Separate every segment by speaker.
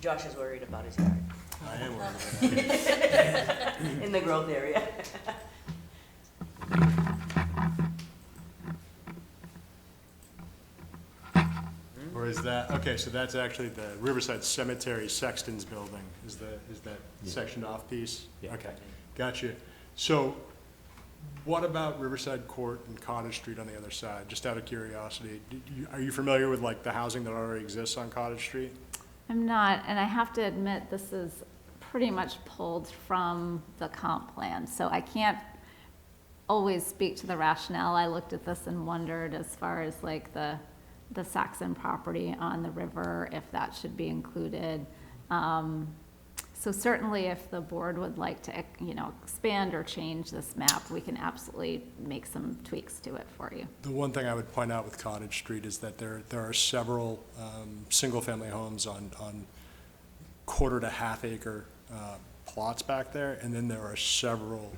Speaker 1: Josh is worried about his yard
Speaker 2: I am aware of that.
Speaker 1: in the growth area.
Speaker 2: Or is that, okay, so that's actually the Riverside Cemetery Sexton's Building, is the, is that
Speaker 3: Yeah.
Speaker 2: sectioned off piece?
Speaker 3: Yeah.
Speaker 2: Okay, gotcha. So what about Riverside Court and Cottage Street on the other side? Just out of curiosity, do you- are you familiar with like the housing that already exists on Cottage Street?
Speaker 4: I'm not, and I have to admit, this is pretty much pulled from the comp plan, so I can't always speak to the rationale. I looked at this and wondered as far as like the, the Saxon property on the river, if that should be included. Um, So certainly if the board would like to, you know, expand or change this map, we can absolutely make some tweaks to it for you.
Speaker 2: The one thing I would point out with Cottage Street is that there, there are several um, single-family homes on, on quarter to half acre uh, plots back there, and then there are several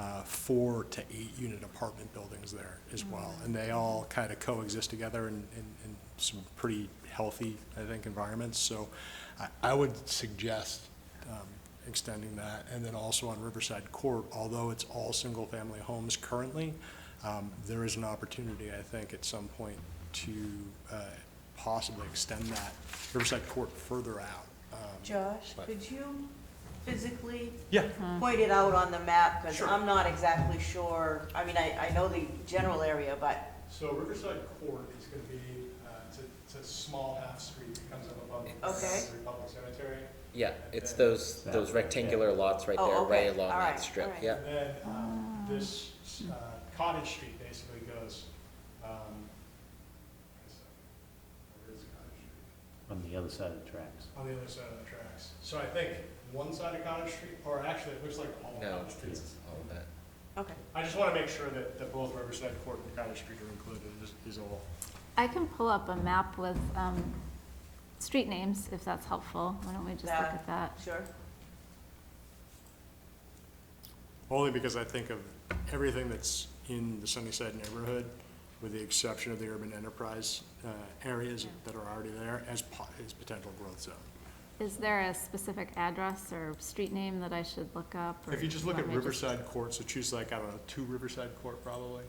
Speaker 2: uh, four to eight unit apartment buildings there as well. And they all kind of coexist together in, in, in some pretty healthy, I think, environments. So I, I would suggest um, extending that. And then also on Riverside Court, although it's all single-family homes currently, um, there is an opportunity, I think, at some point to uh, possibly extend that Riverside Court further out. Um,
Speaker 1: Josh,
Speaker 2: But-
Speaker 1: could you physically
Speaker 2: Yeah,
Speaker 1: point it out on the map? Because
Speaker 2: Sure.
Speaker 1: I'm not exactly sure, I mean, I, I know the general area, but,
Speaker 2: so Riverside Court is going to be, uh, it's a, it's a small half street that comes up above
Speaker 1: Okay.
Speaker 2: the Republic Cemetery.
Speaker 5: Yeah, it's those,
Speaker 3: That
Speaker 5: those
Speaker 3: way, yeah.
Speaker 5: rectangular lots right
Speaker 1: Oh,
Speaker 5: there,
Speaker 1: okay.
Speaker 5: right along
Speaker 1: All right,
Speaker 5: that strip,
Speaker 1: all right.
Speaker 5: yeah.
Speaker 2: And then um, this uh, Cottage Street basically goes, um, where is Cottage Street?
Speaker 3: on the other side of the tracks.
Speaker 2: on the other side of the tracks. So I think one side of Cottage Street, or actually, it looks like all of
Speaker 5: No,
Speaker 2: Cottage Street.
Speaker 5: it's all of that.
Speaker 1: okay.
Speaker 2: I just want to make sure that, that both Riverside Court and Cottage Street are included, is, is all.
Speaker 4: I can pull up a map with, um, street names, if that's helpful. Why don't we just look
Speaker 1: That-
Speaker 4: at that?
Speaker 1: Sure.
Speaker 2: Only because I think of everything that's in the Sunnyside neighborhood, with the exception of the urban enterprise, uh, areas that are already there as po- as potential growth zone.
Speaker 4: Is there a specific address or street name that I should look up? or
Speaker 2: If you just look at
Speaker 4: want me to just-
Speaker 2: Riverside Court, so choose like, I don't know, two Riverside Court probably.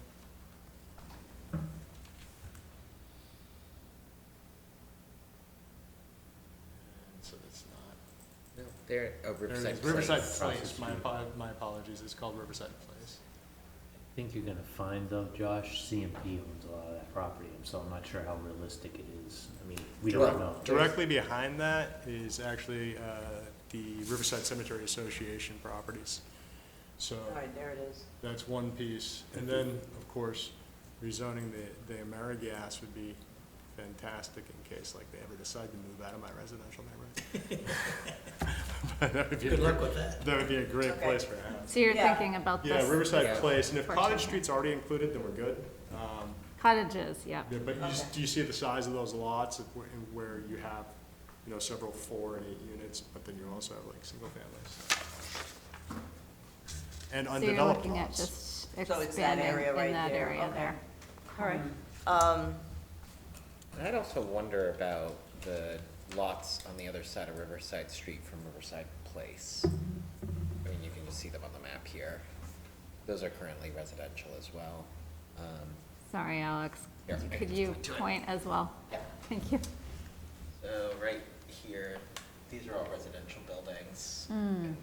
Speaker 2: And So it's not.
Speaker 5: No, there, oh,
Speaker 2: There it
Speaker 5: Riverside
Speaker 2: is,
Speaker 5: Place.
Speaker 2: Riverside
Speaker 5: across the
Speaker 2: Place, my,
Speaker 5: street.
Speaker 2: apo- my apologies, it's called Riverside Place.
Speaker 3: I think you're gonna find though, Josh, CMP owns a lot of that property, and so I'm not sure how realistic it is. I mean, we
Speaker 5: Direct-
Speaker 3: don't know.
Speaker 2: Directly behind that is actually uh, the Riverside Cemetery Association properties. So
Speaker 1: All right, there it is.
Speaker 2: that's one piece. And then, of course, rezoning the, the AmeriGas would be fantastic in case like they ever decide to move out of my residential neighborhood. Good luck with that. That would be a great
Speaker 1: Okay.
Speaker 2: place for a house.
Speaker 4: So you're
Speaker 1: Yeah.
Speaker 4: thinking about
Speaker 2: Yeah,
Speaker 4: this
Speaker 2: Riverside
Speaker 5: Yeah.
Speaker 2: Place, and if Cottage
Speaker 4: Fortunately.
Speaker 2: Street's already included, then we're good. Um,
Speaker 4: cottages, yeah.
Speaker 2: yeah, but you, s-
Speaker 1: Okay.
Speaker 2: do you see the size of those lots of where, and where you have, you know, several four and eight units, but then you also have like single families? And
Speaker 4: So you're
Speaker 2: undeveloped
Speaker 4: looking at
Speaker 2: lots.
Speaker 4: just
Speaker 1: So it's that
Speaker 4: expanding
Speaker 1: area right
Speaker 4: in that
Speaker 1: there,
Speaker 4: area
Speaker 1: okay.
Speaker 4: there. Mm-hmm.
Speaker 1: All right. Um,
Speaker 5: And I'd also wonder about the lots on the other side of Riverside Street from Riverside Place. I mean, you can just see them on the map here. Those are currently residential as well. Um,
Speaker 4: Sorry, Alex.
Speaker 5: Yeah.
Speaker 4: Could you point as well?
Speaker 5: Yeah.
Speaker 4: Thank you.
Speaker 5: So right here, these are all residential buildings.
Speaker 1: Mm-hmm. Hmm.
Speaker 4: Mm.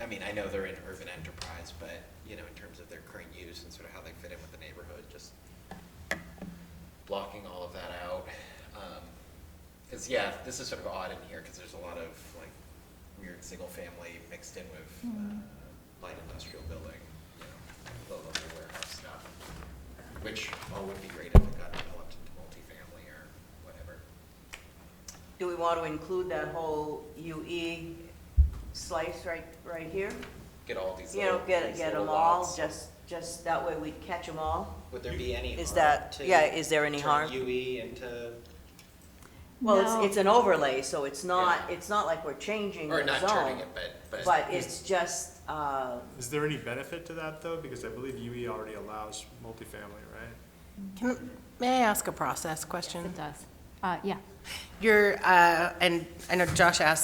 Speaker 5: I mean, I know they're in urban enterprise, but, you know, in terms of their current use and sort of how they fit in with the neighborhood, just blocking all of that out. Because, yeah, this is sort of odd in here, because there's a lot of, like, weird single-family mixed in with uh, light industrial building, you know, low-level warehouse stuff, which all would be great if it got developed into multifamily or whatever.
Speaker 1: do we want to include that whole UE slice right, right here?
Speaker 5: Get all these
Speaker 1: You know,
Speaker 5: little,
Speaker 1: get,
Speaker 5: these
Speaker 1: get
Speaker 5: little
Speaker 1: them all,
Speaker 5: lots.
Speaker 1: just, just that way we catch them all?
Speaker 5: Would there be any harm to?
Speaker 1: Is that- yeah, is there any
Speaker 5: turn
Speaker 1: harm?
Speaker 5: UE into,
Speaker 1: Well,
Speaker 4: No.
Speaker 1: it's, it's an overlay, so it's not, it's not like we're changing the
Speaker 5: or
Speaker 1: zone.
Speaker 5: not turning it, but,
Speaker 1: But it's just, uh,
Speaker 2: Is there any benefit to that though? Because I believe UE already allows multifamily, right?
Speaker 6: Can, may I ask a process question?
Speaker 4: It does. Uh, yeah.
Speaker 6: Your, uh, and I know Josh asked